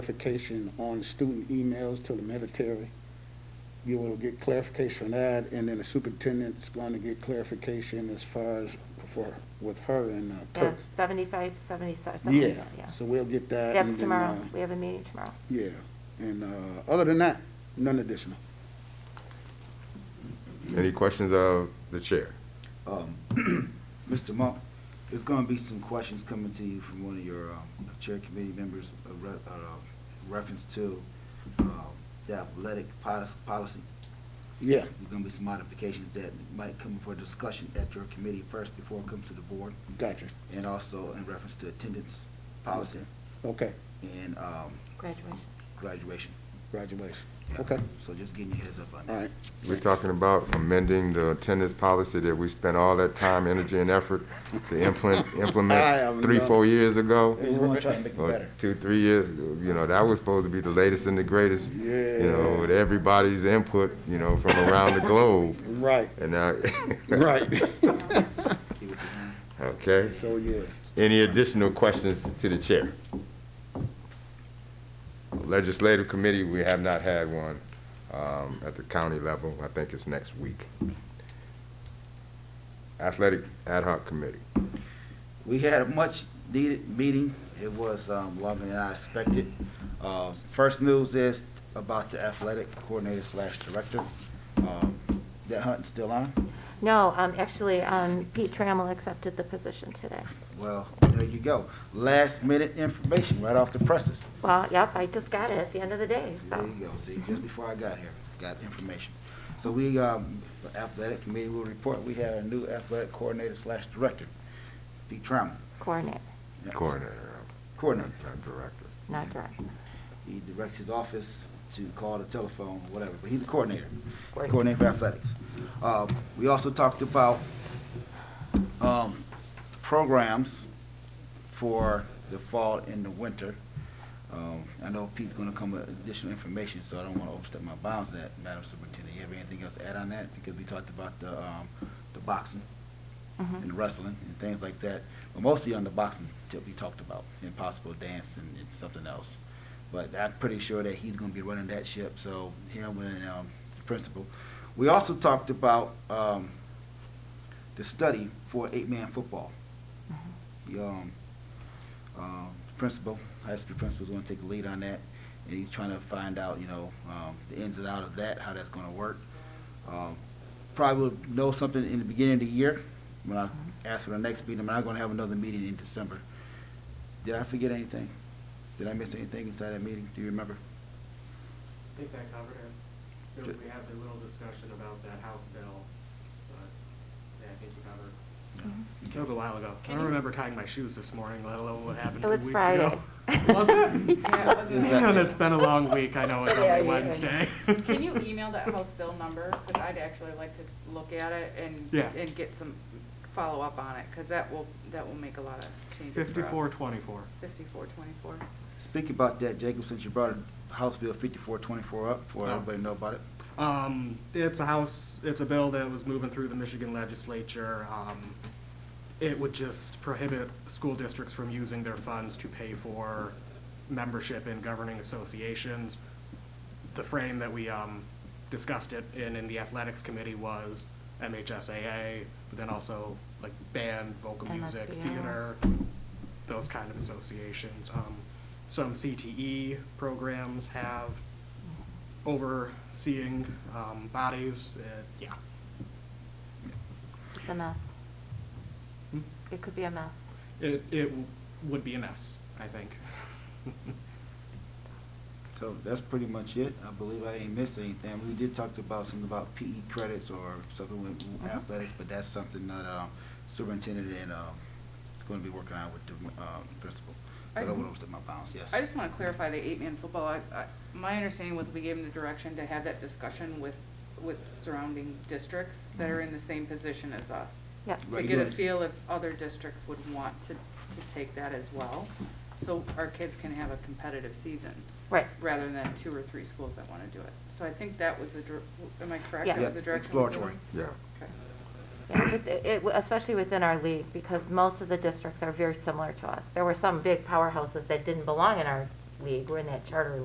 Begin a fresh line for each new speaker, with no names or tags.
clarification on student emails to the military. You will get clarification on that, and then the superintendent's going to get clarification as far as for, with her and uh,
Yeah,
Kirk.
75, 77, something like
Yeah,
that, yeah.
so we'll get that. and
Deb's
then,
tomorrow,
uh,
we have a meeting tomorrow.
Yeah, and uh, other than that, none additional.
Any questions of the chair?
Mr. Um, Monk, there's going to be some questions coming to you from one of your um, chair committee members uh, re- uh, reference to um, the athletic poli- policy.
Yeah,
There's going to be some modifications that might come for discussion at your committee first before it comes to the board,
gotcha.
and also in reference to attendance policy
Okay,
and um,
Graduation.
graduation.
graduation.
Yeah.
Okay,
So just getting your heads up on
all
that.
right.
We're talking about amending the attendance policy that we spent all that time, energy, and effort to implement,
I am
implement three,
not-
four years ago.
We want to try and make it
or
better.
Two, three years, you know, that was supposed to be the latest and the greatest, you know,
Yeah.
with everybody's input, you know, from around the globe.
Right,
And now,
right.
Get with your hand.
okay,
So, yeah.
any additional questions to the chair? Legislative committee, we have not had one, um, at the county level. I think it's next week. Athletic ad hoc committee.
We had a much-needed meeting. It was um, longer than I expected. Uh, First news is about the athletic coordinator slash director. Um, That hunt's still on?
No, um, actually, um, Pete Trammell accepted the position today.
Well, there you go. Last-minute information right off the presses.
Well, yep, I just got it at the end of the day,
There
so.
you go. See, just before I got here, got information. So we, um, the athletic committee will report, we have a new athletic coordinator slash director, Pete Trammell.
Coordinate,
Yes.
Coroner,
Coordinator.
not director.
not director.
He directs his office to call the telephone, whatever, but he's a coordinator. He's a coordinator for athletics. Uh, We also talked about um, programs for the fall and the winter. Um, I know Pete's going to come with additional information, so I don't want to overstep my bounds on that, Madam Superintendent. You have anything else to add on that? Because we talked about the um, the boxing
Mhm.
and wrestling and things like that, but mostly on the boxing tip we talked about, and possible dance and and something else. But I'm pretty sure that he's gonna be running that ship, so him and, um, the principal. We also talked about, um, the study for eight-man football. The, um, um, principal, high school principal's gonna take the lead on that, and he's trying to find out, you know, um, the ins and outs of that, how that's gonna work. Um, Probably will know something in the beginning of the year, when I ask for the next meeting, I'm not gonna have another meeting in December. Did I forget anything? Did I miss anything inside that meeting? Do you remember?
I think that covered it. There- We had a little discussion about that House bill, but yeah, I think you covered. It was a while ago. I don't remember tying my shoes this morning, let alone what happened
It
two
was
weeks
Friday.
ago. Was it? Man, it's been a long week. I know it's
Yeah,
only
yeah.
Wednesday.
Can you email that House bill number? Because I'd actually like to look at it and,
Yeah.
and get some follow-up on it, because that will, that will make a lot of changes for us.
Fifty-four twenty-four.
Fifty-four twenty-four.
Speak about that, Jacob, since you brought House Bill fifty-four twenty-four up, for
Oh.
everybody to know about it.
Um, it's a house, it's a bill that was moving through the Michigan legislature. Um, it would just prohibit school districts from using their funds to pay for membership in governing associations. The frame that we, um, discussed it in, in the athletics committee was MHSAA, but then also like band, vocal music,
MSBL.
theater, those kind of associations. Um, some CTE programs have overseeing um, bodies. Uh, yeah.
It's a mess. It could be a mess.
It, it w- would be a mess, I think.
So that's pretty much it. I believe I didn't miss anything. We did talk about something about PE credits or something with athletics, but that's something that, um, superintendent and, um, is gonna be working out with the, um, principal. I don't
I-
wanna overstep my bounds, yes.
I just want to clarify the eight-man football. I, I, my understanding was we gave them the direction to have that discussion with, with surrounding districts that are in the same position as us.
Yep.
to
Right,
get a
good.
feel if other districts would want to, to take that as well. So our kids can have a competitive season.
Right.
Rather than two or three schools that want to do it. So I think that was the, dir- am I correct?
Yeah.
That was the
Yeah,
direction we're
exploratory.
going?
Yeah.
Okay.
Yeah, it's- it- it- Especially within our league, because most of the districts are very similar to us. There were some big powerhouses that didn't belong in our league, we're in that charter